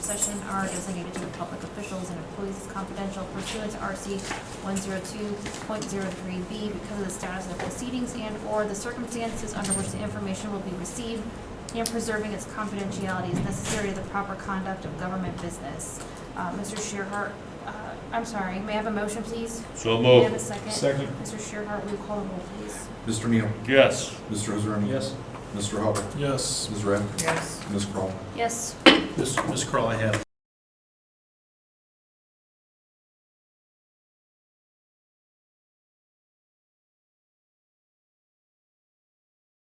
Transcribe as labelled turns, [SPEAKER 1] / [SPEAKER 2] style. [SPEAKER 1] session are designated to the public officials and employees as confidential pursuant to RC one zero two point zero three B because of the status of the proceedings and/or the circumstances under which the information will be received and preserving its confidentiality is necessary to the proper conduct of government business. Uh, Mr. Shearhart, uh, I'm sorry, may I have a motion, please?
[SPEAKER 2] So
[SPEAKER 1] May I have
[SPEAKER 2] moved.
[SPEAKER 1] a second?
[SPEAKER 3] Second.
[SPEAKER 1] Mr. Shearhart, will you call the roll, please?
[SPEAKER 4] Mr. Neal?
[SPEAKER 2] Yes.
[SPEAKER 4] Mr. Roserun?
[SPEAKER 3] Yes.
[SPEAKER 4] Mr. Hubble?
[SPEAKER 3] Yes.
[SPEAKER 4] Ms. Rafter? Yes. Ms. Crawl?
[SPEAKER 1] Yes.
[SPEAKER 3] Ms. Ms. Crawl, I have.